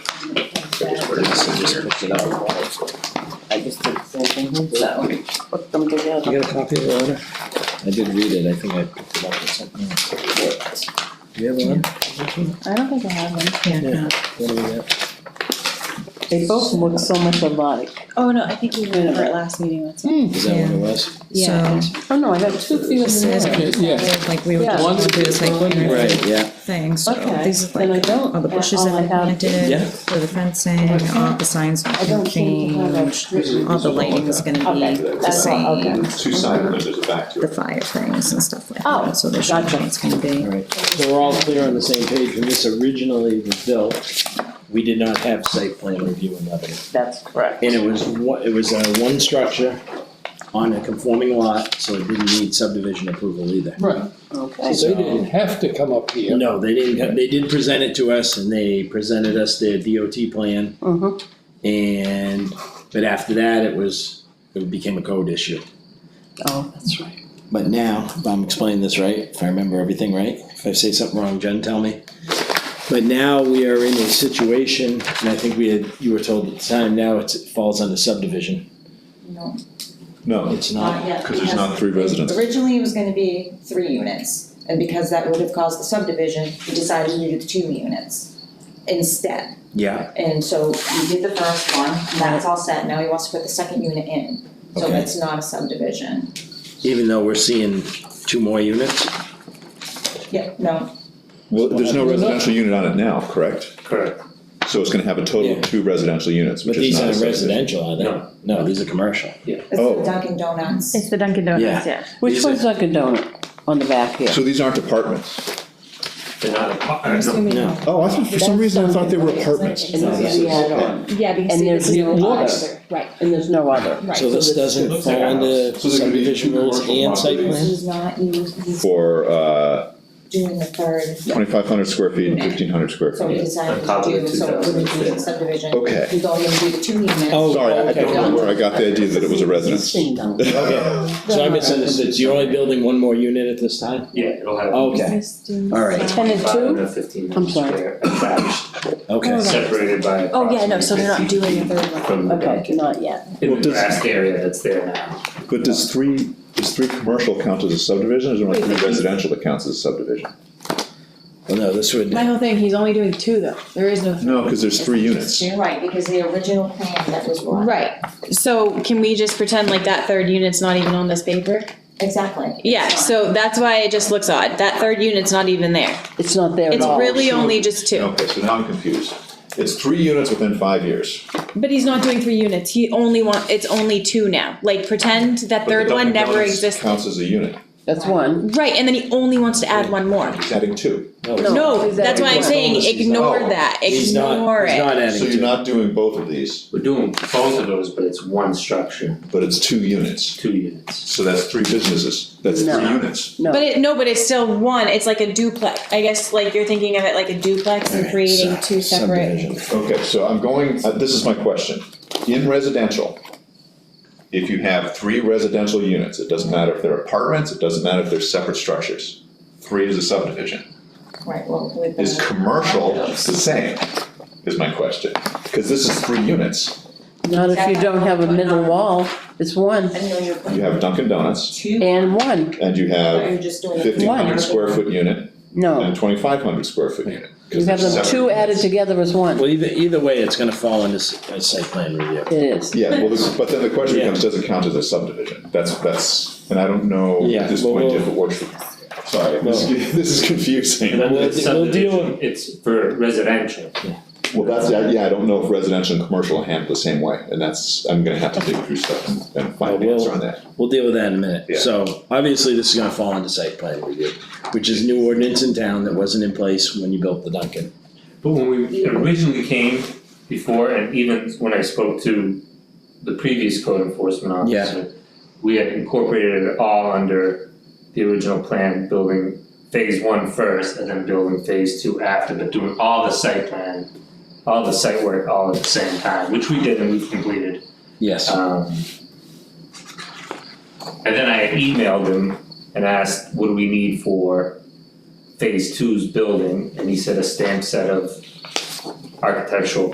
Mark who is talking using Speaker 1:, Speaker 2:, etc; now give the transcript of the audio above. Speaker 1: looked it up. I just did the same thing, so put them together.
Speaker 2: You got a copy of the letter?
Speaker 3: I did read it, I think I picked it up or something.
Speaker 2: Do you have one?
Speaker 1: I don't think I have them.
Speaker 2: Yeah. What do we got?
Speaker 1: They both look so much alike.
Speaker 4: Oh, no, I think we went over it last meeting, that's all.
Speaker 3: Is that what it was?
Speaker 4: Yeah.
Speaker 5: So,
Speaker 1: Oh, no, I have two
Speaker 5: this is
Speaker 1: feet.
Speaker 5: good, like we would
Speaker 1: Yeah.
Speaker 5: just go through the site plan
Speaker 3: Right, yeah.
Speaker 5: thing, so
Speaker 1: Okay,
Speaker 5: these are
Speaker 1: then I
Speaker 5: like
Speaker 1: don't,
Speaker 5: all the bushes
Speaker 1: all
Speaker 5: that
Speaker 1: I
Speaker 5: we
Speaker 1: have,
Speaker 5: planted,
Speaker 3: Yeah.
Speaker 5: for the fencing, all the signs
Speaker 1: I don't
Speaker 5: can
Speaker 1: seem to have a
Speaker 5: change,
Speaker 1: street.
Speaker 5: all the lighting is gonna be
Speaker 1: Okay,
Speaker 5: the
Speaker 1: that's all, okay.
Speaker 5: same,
Speaker 6: There's two side windows, a back to
Speaker 5: the
Speaker 6: it.
Speaker 5: fire things and stuff like
Speaker 1: Oh,
Speaker 5: that, so they should know
Speaker 1: gotcha.
Speaker 5: what it's gonna be.
Speaker 3: Alright,
Speaker 2: So we're all clear on the same page, when this originally was built, we did not have site plan review in Lebanon.
Speaker 1: That's correct.
Speaker 2: And it was one, it was uh one structure on a conforming lot, so it didn't need subdivision approval either.
Speaker 7: Right,
Speaker 1: Okay.
Speaker 7: so they didn't have to come up here.
Speaker 2: No, they didn't, they did present it to us and they presented us their DOT plan
Speaker 1: Mhm.
Speaker 2: and, but after that, it was, it became a code issue.
Speaker 1: Oh, that's right.
Speaker 3: but now, if I'm explaining this right, if I remember everything right, if I say something wrong, Jen, tell me.
Speaker 2: But now we are in a situation, and I think we had, you were told at the time, now it's, it falls under subdivision.
Speaker 4: No,
Speaker 6: No,
Speaker 2: It's not,
Speaker 4: yet.
Speaker 6: because there's not three residents.
Speaker 4: Originally, it was gonna be three units, and because that would have caused the subdivision, we decided to do the two units instead.
Speaker 2: yeah,
Speaker 4: And so we did the first one, and that's all set, now he wants to put the second unit in, so
Speaker 2: Okay.
Speaker 4: it's not a subdivision.
Speaker 2: even though we're seeing two more units.
Speaker 4: Yeah, no,
Speaker 6: Well, there's no residential unit on it now, correct?
Speaker 7: Correct.
Speaker 6: So it's gonna have a total
Speaker 2: Yeah.
Speaker 6: of two residential units,
Speaker 2: But
Speaker 6: which is
Speaker 2: these
Speaker 6: not a
Speaker 2: aren't
Speaker 6: subdivision.
Speaker 2: residential, are they?
Speaker 7: No.
Speaker 2: No, these are commercial.
Speaker 4: it's the
Speaker 6: Oh.
Speaker 4: Dunkin' Donuts.
Speaker 5: the Dunkin'
Speaker 2: Donuts,
Speaker 5: yeah.
Speaker 1: Which
Speaker 2: These are-
Speaker 1: one's like a donut on the back here?
Speaker 6: So these aren't apartments?
Speaker 7: They're not
Speaker 5: I'm
Speaker 7: apartments.
Speaker 5: assuming,
Speaker 2: No.
Speaker 6: Oh, I thought, for some reason, I thought they were apartments.
Speaker 1: And there's the other one,
Speaker 8: Yeah, because
Speaker 1: And
Speaker 8: see,
Speaker 1: there's
Speaker 8: this is
Speaker 1: no
Speaker 8: the
Speaker 1: other.
Speaker 8: other, right.
Speaker 1: and there's no other.
Speaker 8: Right.
Speaker 2: So this doesn't
Speaker 7: looks like
Speaker 2: fall
Speaker 7: a
Speaker 2: under
Speaker 7: house. So they're gonna be
Speaker 2: subdivision rules
Speaker 7: commercial
Speaker 2: and site
Speaker 7: properties.
Speaker 2: plan?
Speaker 4: He's not, he's, he's
Speaker 6: For, uh,
Speaker 4: doing the third,
Speaker 6: twenty-five hundred square feet and fifteen hundred square
Speaker 4: so we
Speaker 6: feet.
Speaker 4: decided
Speaker 7: On
Speaker 4: to
Speaker 7: top of
Speaker 4: do,
Speaker 7: the
Speaker 4: so it wouldn't be a
Speaker 7: 2006.
Speaker 4: subdivision.
Speaker 6: Okay,
Speaker 4: He's only gonna do the two units.
Speaker 2: Oh,
Speaker 6: sorry, I
Speaker 2: okay.
Speaker 6: don't know where I got the idea that it was a residence.
Speaker 1: Ding dong.
Speaker 2: Okay. So I misunderstood, so you're only building one more unit at this time?
Speaker 7: Yeah, it'll have.
Speaker 2: Okay, all right,
Speaker 1: Ten and two?
Speaker 7: fifteen
Speaker 1: I'm sorry.
Speaker 7: attached,
Speaker 2: okay.
Speaker 7: separated by
Speaker 8: Oh, yeah, no, so they're not
Speaker 7: approximately
Speaker 8: doing a
Speaker 7: 50
Speaker 8: third one.
Speaker 7: From the
Speaker 1: Okay,
Speaker 7: Dunkin',
Speaker 1: not yet.
Speaker 7: in
Speaker 6: Well,
Speaker 7: the
Speaker 6: does-
Speaker 7: grassed area that's there now.
Speaker 6: But does three, does three commercial count as a subdivision, or is it only
Speaker 8: Wait,
Speaker 6: three
Speaker 8: but-
Speaker 6: residential that counts as a subdivision?
Speaker 2: Well, no, this would,
Speaker 8: My whole thing, he's only doing two though, there is no.
Speaker 6: No, because there's three units.
Speaker 4: You're right, because the original plan that was what?
Speaker 8: Right, so can we just pretend like that third unit's not even on this paper?
Speaker 4: Exactly.
Speaker 8: Yeah,
Speaker 4: It's
Speaker 8: so that's why it just looks odd, that third unit's not even there,
Speaker 1: It's not there at
Speaker 8: it's
Speaker 1: all.
Speaker 8: really only just two.
Speaker 6: Okay, so now I'm confused. It's three units within five years.
Speaker 8: But he's not doing three units, he only want, it's only two now, like pretend
Speaker 6: but
Speaker 8: that
Speaker 6: the
Speaker 8: third one
Speaker 6: Dunkin'
Speaker 8: never
Speaker 6: Donuts
Speaker 8: existed.
Speaker 6: Counts as a unit,
Speaker 1: That's one.
Speaker 8: Right, and then he only wants to add one more.
Speaker 6: he's adding two.
Speaker 1: No,
Speaker 8: No, that's why I'm
Speaker 1: he's
Speaker 8: saying
Speaker 2: not-
Speaker 8: ignore
Speaker 6: Oh.
Speaker 8: that,
Speaker 2: he's not,
Speaker 8: ignore
Speaker 2: he's
Speaker 8: it.
Speaker 2: not adding
Speaker 6: So you're
Speaker 2: to it.
Speaker 6: not doing both of these,
Speaker 7: We're doing both of those, but it's one structure,
Speaker 6: but it's two units.
Speaker 7: two units.
Speaker 6: So that's three businesses, that's three
Speaker 1: No.
Speaker 6: units.
Speaker 1: No.
Speaker 8: But it, no, but it's still one, it's like a duplex, I guess like you're thinking of it like a duplex and creating
Speaker 2: Alright,
Speaker 8: two
Speaker 2: so-
Speaker 8: separate.
Speaker 2: subdivision.
Speaker 6: Okay, so I'm going, uh, this is my question. In residential, if you have three residential units, it doesn't matter if they're apartments, it doesn't matter if they're separate structures. Three is a subdivision.
Speaker 4: Right, well, with the.
Speaker 6: Is commercial the same, is my question, because this is three units,
Speaker 1: Not if you don't have a middle wall, it's one
Speaker 4: I know you're
Speaker 6: you
Speaker 4: putting
Speaker 6: have Dunkin' Donuts,
Speaker 4: two,
Speaker 1: and one,
Speaker 6: and you
Speaker 4: but
Speaker 6: have
Speaker 4: you're just doing.
Speaker 6: fifteen
Speaker 1: One.
Speaker 6: hundred square foot unit and
Speaker 1: no,
Speaker 6: a twenty-five hundred square foot unit.
Speaker 1: you
Speaker 6: 'cause
Speaker 1: have
Speaker 6: they're
Speaker 1: them
Speaker 6: separate
Speaker 1: two added
Speaker 6: units.
Speaker 1: together as one,
Speaker 2: Well, either, either way, it's gonna fall under s- uh, site plan review.
Speaker 1: it is.
Speaker 6: Yeah, well, this, but then the question
Speaker 2: Yeah.
Speaker 6: becomes, does it count as a subdivision? That's, that's, and I don't know
Speaker 2: Yeah,
Speaker 6: at this
Speaker 2: well,
Speaker 6: point
Speaker 2: we'll-
Speaker 6: if it works. for- Sorry, this is, this is confusing.
Speaker 2: We'll- we'll deal
Speaker 7: Subdivision, It's for residential.
Speaker 6: Well, that's, yeah, I don't know if residential and commercial are handled the same way, and that's, I'm gonna have to dig through stuff and- and find the
Speaker 2: Well,
Speaker 6: answer on that.
Speaker 2: We'll deal with that in a minute.
Speaker 6: Yeah.
Speaker 2: So obviously, this is gonna fall into site plan review, which is new ordinance in town that wasn't in place when you built the Duncan.
Speaker 7: But when we originally came before, and even when I spoke to the previous code enforcement officer, we had incorporated it all under the original plan, building phase one first, and then building phase two after, but doing all the site plan, all the site work all at the same time, which we did and we've completed.
Speaker 2: Yes.
Speaker 7: Um, and then I had emailed him and asked, what do we need for phase two's building? And he said a stamp set of architectural